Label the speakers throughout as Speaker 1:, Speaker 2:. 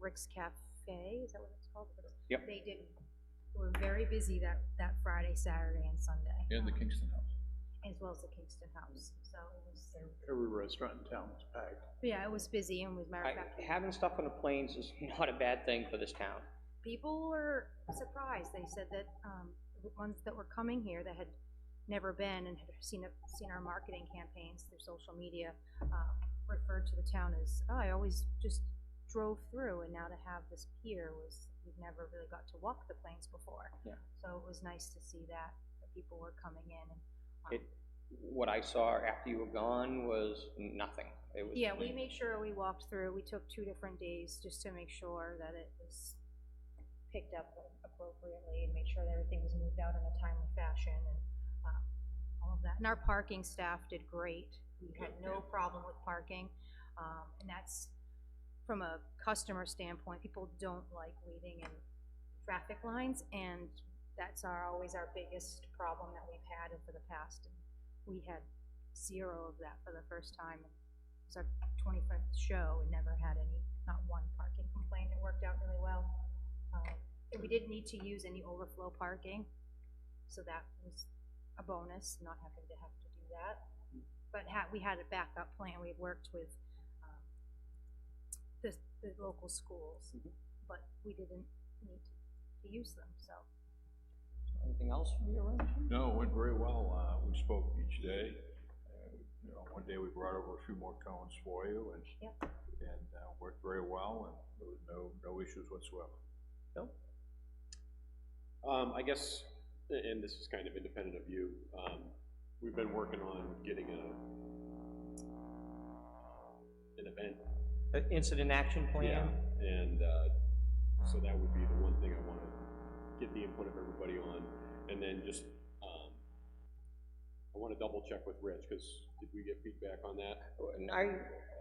Speaker 1: Rick's Cafe, is that what it's called? Rick's-
Speaker 2: Yep.
Speaker 1: They did, were very busy that, that Friday, Saturday, and Sunday.
Speaker 3: and the
Speaker 1: um,
Speaker 3: Kingston House.
Speaker 1: As well as the Kingston House, so it was,
Speaker 4: Every restaurant in town was packed.
Speaker 1: yeah, it was busy, and with matter of fact,
Speaker 2: Having stuff on the planes is not a bad thing for this town.
Speaker 1: people were surprised. They said that, um, the ones that were coming here that had never been and had seen, seen our marketing campaigns through social media, uh, referred to the town as, oh, I always just drove through and now to have this pier was, we've never really got to walk the plains before.
Speaker 2: Yeah.
Speaker 1: So it was nice to see that, that people were coming in and. um,
Speaker 2: It, what I saw after you were gone was nothing. It was.
Speaker 1: Yeah, we made sure we walked through, we took two different days just to make sure that it was picked up appropriately and made sure that everything was moved out in a timely fashion and, um, all of that. And our parking staff did great, we had no problem with parking, um, and that's, from a customer standpoint, people don't like waiting in traffic lines, and that's our, always our biggest problem that we've had for the past. We had zero of that for the first time, it's our twenty-fifth show, and never had any, not one parking complaint, it worked out really well. Um, And we didn't need to use any overflow parking, so that was a bonus, not having to have to do that. But ha we had a backup plan, we had worked with, um, the, the local schools,
Speaker 2: Mhm.
Speaker 1: but we didn't need to use them, so.
Speaker 2: Anything else from your end?
Speaker 3: No, it went very well, uh, we spoke each day, and, you know, one day we brought over a few more cones for you, and,
Speaker 1: Yep.
Speaker 3: and, uh, worked very well, and there was no, no issues whatsoever.
Speaker 5: Um, I guess, a- and this is kind of independent of you, um, we've been working on getting a, an event.
Speaker 2: Uh, Incident action plan?
Speaker 5: And, uh, so that would be the one thing I wanna get the input of everybody on, and then just, um, I wanna double check with Rich, cause did we get feedback on that?
Speaker 2: And I,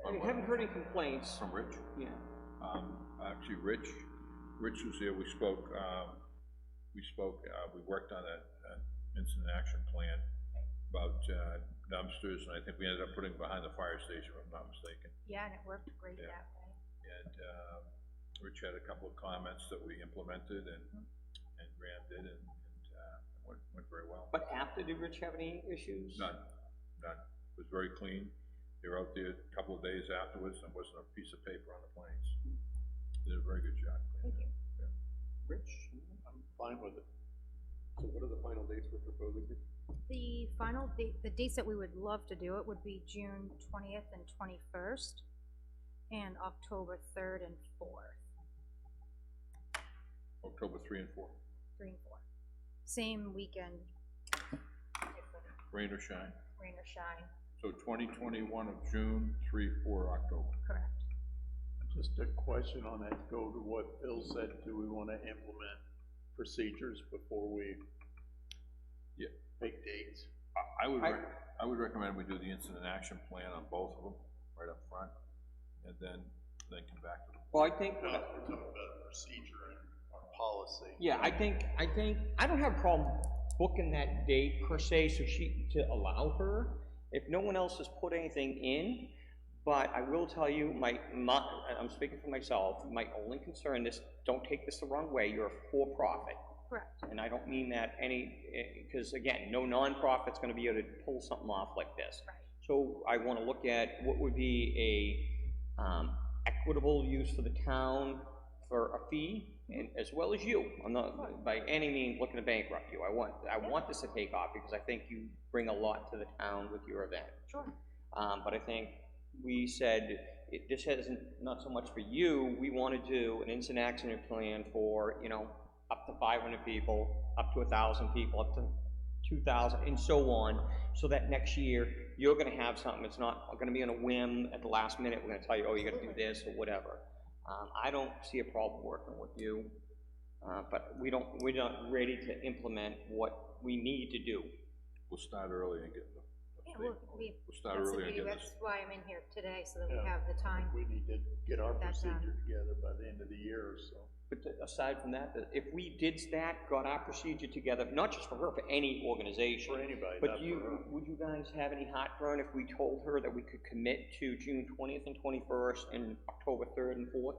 Speaker 2: I haven't heard any complaints.
Speaker 3: From Rich?
Speaker 2: Yeah.
Speaker 3: Um, actually, Rich, Rich was here, we spoke, um, we spoke, uh, we worked on that, uh, incident action plan about, uh, dumpsters, and I think we ended up putting behind the fire station, if I'm not mistaken.
Speaker 1: Yeah, and it worked great
Speaker 3: Yeah.
Speaker 1: that way.
Speaker 3: And, um, Rich had a couple of comments that we implemented and,
Speaker 1: Mm-hmm.
Speaker 3: and Graham did, and, and, uh, went, went very well.
Speaker 2: But after, did Rich have any issues?
Speaker 3: None, none. It was very clean. They were out there a couple of days afterwards, and wasn't a piece of paper on the planes. Did a very good job.
Speaker 1: Mm-hmm. Thank you.
Speaker 5: Rich? I'm fine with it. So what are the final dates we're proposing here?
Speaker 1: The final date, the dates that we would love to do it would be June twentieth and twenty-first, and October third and fourth,
Speaker 3: October three and four,
Speaker 1: three and four. Same weekend, different
Speaker 3: rain or shine.
Speaker 1: rain or shine,
Speaker 3: So twenty twenty-one of June, three, four, October.
Speaker 1: correct.
Speaker 4: Just a question on that, to go to what Bill said, do we wanna implement procedures before we
Speaker 3: Yeah.
Speaker 4: make dates?
Speaker 3: I, I would,
Speaker 2: I-
Speaker 3: rec- I would recommend we do the incident action plan on both of them, right up front, and then, then come back to the
Speaker 2: Well, I think,
Speaker 4: No, we're talking about procedure and our policy.
Speaker 2: yeah, I think, I think, I don't have a problem booking that date per se, so she, to allow her, if no one else has put anything in, but I will tell you, my, my, I'm speaking for myself, my only concern is, don't take this the wrong way, you're a for-profit.
Speaker 1: Correct.
Speaker 2: And I don't mean that any, because again, no nonprofit's gonna be able to pull something off like this.
Speaker 1: Right.
Speaker 2: So I wanna look at what would be a, um, equitable use for the town for a fee, and
Speaker 1: Mm-hmm.
Speaker 2: as well as you. I'm not by any means looking to bankrupt you. I want, I want this to take off, because I think you bring a lot to the town with your event.
Speaker 1: Sure.
Speaker 2: Um, but I think we said, it, this isn't, not so much for you, we wanna do an instant accident plan for, you know, up to five hundred people, up to a thousand people, up to two thousand, and so on, so that next year, you're gonna have something, it's not gonna be on a whim at the last minute, we're gonna tell you, oh, you gotta do this, or whatever. Um, I don't see a problem working with you, uh, but we don't, we're not ready to implement what we need to do.
Speaker 3: We'll start early and get the.
Speaker 1: Yeah, well, we,
Speaker 3: We'll start
Speaker 1: that's the
Speaker 3: early and
Speaker 1: beauty,
Speaker 3: get this.
Speaker 1: that's why I'm in here today, so that we
Speaker 4: Yeah.
Speaker 1: have the time.
Speaker 4: We need to get our
Speaker 1: That's, um,
Speaker 4: procedure together by the end of the year or so.
Speaker 2: But th- aside from that, that if we did that, got our procedure together, not just for her, for any
Speaker 4: For
Speaker 2: organization,
Speaker 4: anybody, not
Speaker 2: but
Speaker 4: for uh,
Speaker 2: you,
Speaker 4: her.
Speaker 2: would you guys have any heartburn if we told her that we could commit to June twentieth and twenty-first and October third and fourth?